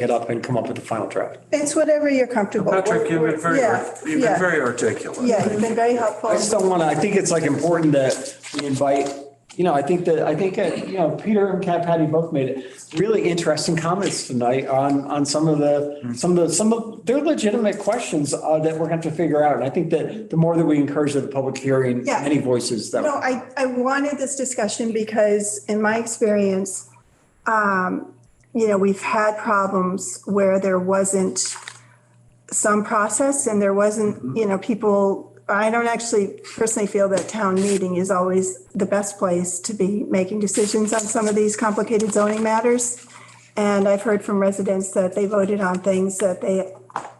it up and come up with the final draft. It's whatever you're comfortable. Patrick, you've been very, Yeah, you've yeah. been very articulate. Yeah, you've been very helpful. I just don't want to, I think it's like important that we invite, you know, I think that, I think, uh, you know, Peter and Kat Patty both made really interesting comments tonight on, on some of the, some of the, some of, they're legitimate questions uh, that we're going to have to figure out. And I think that the more that we encourage the public hearing, Yeah. any voices No, that, I, I wanted this discussion because in my experience, um, you know, we've had problems where there wasn't some process and there wasn't, you know, people, I don't actually personally feel that town meeting is always the best place to be making decisions on some of these complicated zoning matters. And I've heard from residents that they voted on things that they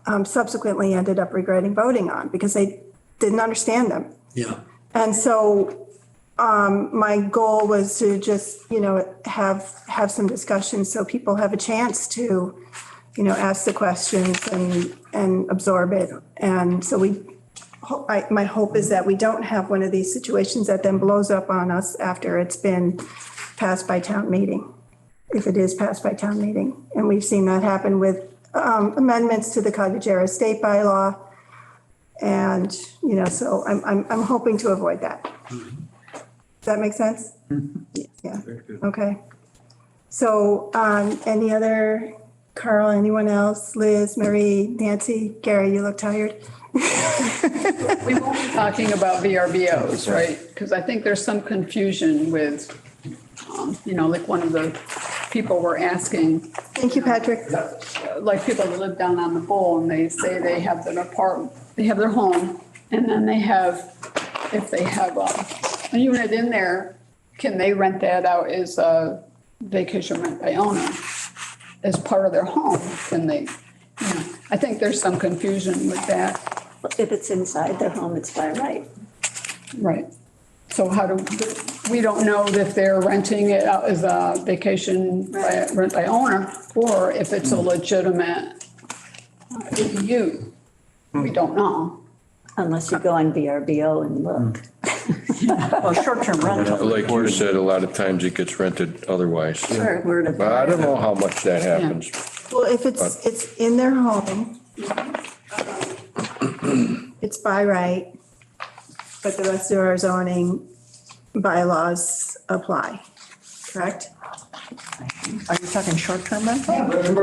um, subsequently ended up regretting voting on because they didn't understand them. yeah, And so um, my goal was to just, you know, have, have some discussions so people have a chance to, you know, ask the questions and, and absorb it. And so we, ho- I, my hope is that we don't have one of these situations that then blows up on us after it's been passed by town meeting, if it is passed by town meeting. And we've seen that happen with um, amendments to the cottage era state bylaw. And, you know, so I'm, I'm, I'm hoping to avoid that. Does that make sense? Yeah, okay. So, um, any other, Carl, anyone else, Liz, Marie, Nancy, Gary, you look tired? We won't be talking about VRBOs, right? Because I think there's some confusion with, um, you know, like one of the people were asking, Thank you, Patrick. uh, like people that live down on the bowl and they say they have their apartment, they have their home, and then they have, if they have a, a unit in there, can they rent that out as a vacation rent by owner as part of their home? Can they, you know, I think there's some confusion with that. If it's inside their home, it's by right. Right. So how do, we don't know if they're renting it out as a vacation by- rent by owner or if it's a legitimate uh, ADU. We don't know. Unless you go on VRBO and look. Well, Oh, short-term rental. Like you said, a lot of times it gets rented otherwise. Or word of But I mouth. don't know how much that happens. Well, if it's, it's in their home, it's by right, but the rest of our zoning bylaws apply, correct? Are you talking short-term rental?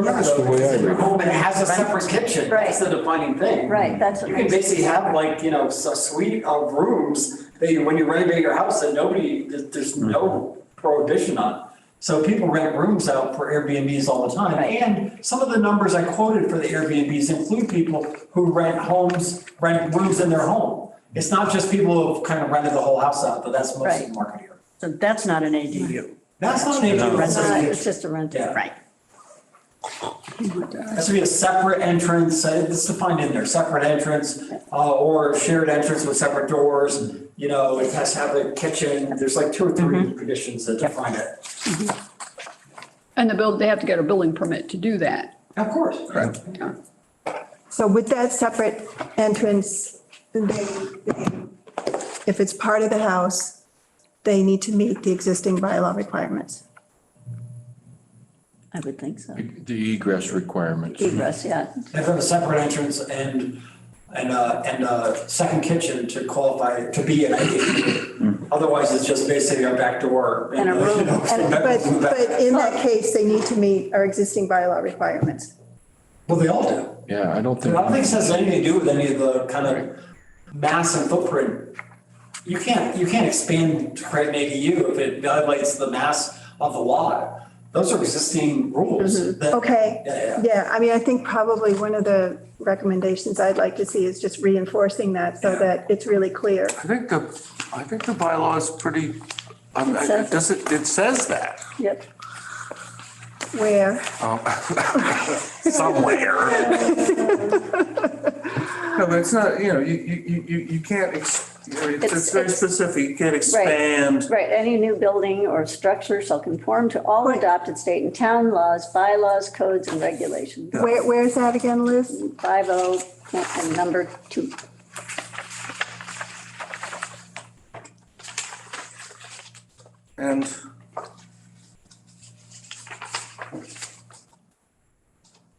That's the way I read it. home and it has a separate kitchen. Right. That's the defining thing. Right, that's what You can makes it basically have like, you know, a suite of rooms that you, when you renovate your house that nobody, there's, there's Mm-hmm. no prohibition on. So people rent rooms out for Airbnbs all the time. Right. And some of the numbers I quoted for the Airbnbs include people who rent homes, rent rooms in their home. It's not just people who've kind of rented the whole house out, but that's most of Right. the market here. So that's not an ADU. That's not an ADU. It's that's not- a- It's just a rental. Yeah. Has to be a separate entrance, uh, it's defined in there, separate entrance, uh, or shared entrance with separate doors. You know, it has to have a kitchen, there's like two or three conditions that define it. And the build, they have to get a building permit to do that. Of course. Correct. So with that separate entrance, they, if it's part of the house, they need to meet the existing bylaw requirements. I would think so. The egress requirements. Egress, yeah. They have to have a separate entrance and, and, uh, and a second kitchen to qualify, to be an Hmm. ADU. Otherwise, it's just basically a back door. And a uh, you room. know, And, but, bedroom in the back. but in that case, they need to meet our existing bylaw requirements. Well, they all do. Yeah, I don't I think. don't think this has anything to do with any of the kind of mass and footprint. You can't, you can't expand to create an ADU if it violates the mass of the lot. Those are existing rules. that- Okay. Yeah, yeah. Yeah, I mean, I think probably one of the recommendations I'd like to see is just reinforcing that so that it's really clear. I think the, I think the bylaw is pretty, um, It says- it doesn't, it says that Yep. Where, somewhere. No, but it's not, you know, you, you, you- you, you can't, ex- you know, it's it's It's- very it's- specific, you can't Right. expand. Right, any new building or structure shall conform to all adopted state and town laws, bylaws, codes, and regulations. where, where's that again, Liz? 50 and number two. And